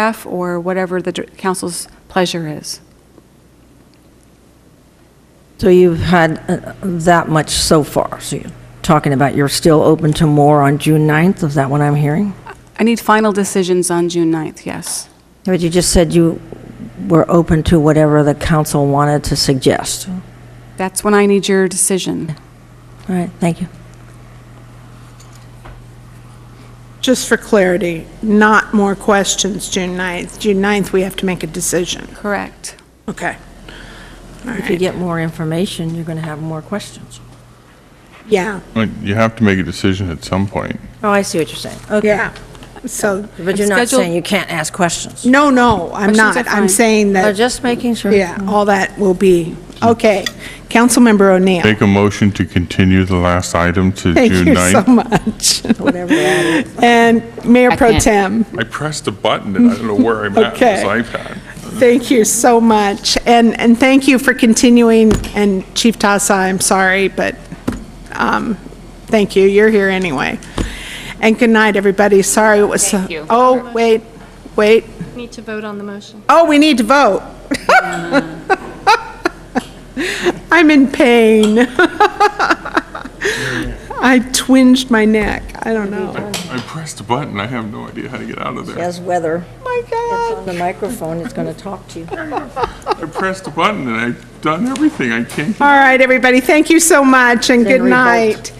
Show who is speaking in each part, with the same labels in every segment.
Speaker 1: F, or whatever the dir- council's pleasure is.
Speaker 2: So you've had uh, that much so far, so you're talking about you're still open to more on June 9th, is that what I'm hearing?
Speaker 1: I need final decisions on June 9th, yes.
Speaker 2: But you just said you were open to whatever the council wanted to suggest. All
Speaker 1: That's when I need your decision.
Speaker 2: right, thank you.
Speaker 3: Just for clarity, not more questions June 9th. June 9th, we have to make a decision.
Speaker 1: Correct.
Speaker 3: Okay. All
Speaker 2: If you
Speaker 3: right.
Speaker 2: get more information, you're going to have more questions.
Speaker 3: Yeah,
Speaker 4: Well, You have to make a decision at some point.
Speaker 2: Oh, I see what you're saying. Okay.
Speaker 3: yeah. So,
Speaker 2: But you're not
Speaker 1: Schedule-
Speaker 2: saying you can't ask questions.
Speaker 3: no, no, I'm
Speaker 1: Questions
Speaker 3: not.
Speaker 1: are
Speaker 3: I'm
Speaker 1: fine.
Speaker 3: saying
Speaker 2: I'm
Speaker 3: that,
Speaker 2: just making sure.
Speaker 3: yeah, all that will be, okay. Councilmember O'Neill.
Speaker 4: Make a motion to continue the last item to
Speaker 3: Thank
Speaker 4: June
Speaker 3: you so
Speaker 4: 9th.
Speaker 3: much.
Speaker 2: Whatever that is.
Speaker 3: And Mayor Pro Tem.
Speaker 4: I pressed a button and I don't know where I'm at on this
Speaker 3: Okay.
Speaker 4: iPad.
Speaker 3: Thank you so much, and, and thank you for continuing, and Chief Tasa, I'm sorry, but um, thank you, you're here anyway. And good night, everybody, sorry it was so...
Speaker 5: Thank you.
Speaker 3: Oh, wait, wait,
Speaker 5: Need to vote on the motion.
Speaker 3: oh, we need to vote. I'm in pain. I twinged my neck, I don't know. Oh
Speaker 4: I pressed a button, I have no idea how to get out of there.
Speaker 2: As weather,
Speaker 3: Oh, my God.
Speaker 2: on the microphone, it's going to talk to you.
Speaker 4: I pressed a button and I've done everything, I can't
Speaker 3: All right, everybody, thank you so much, and good
Speaker 2: revolt.
Speaker 3: night.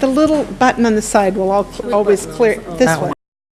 Speaker 3: The little button on the side will al- always clear, this one.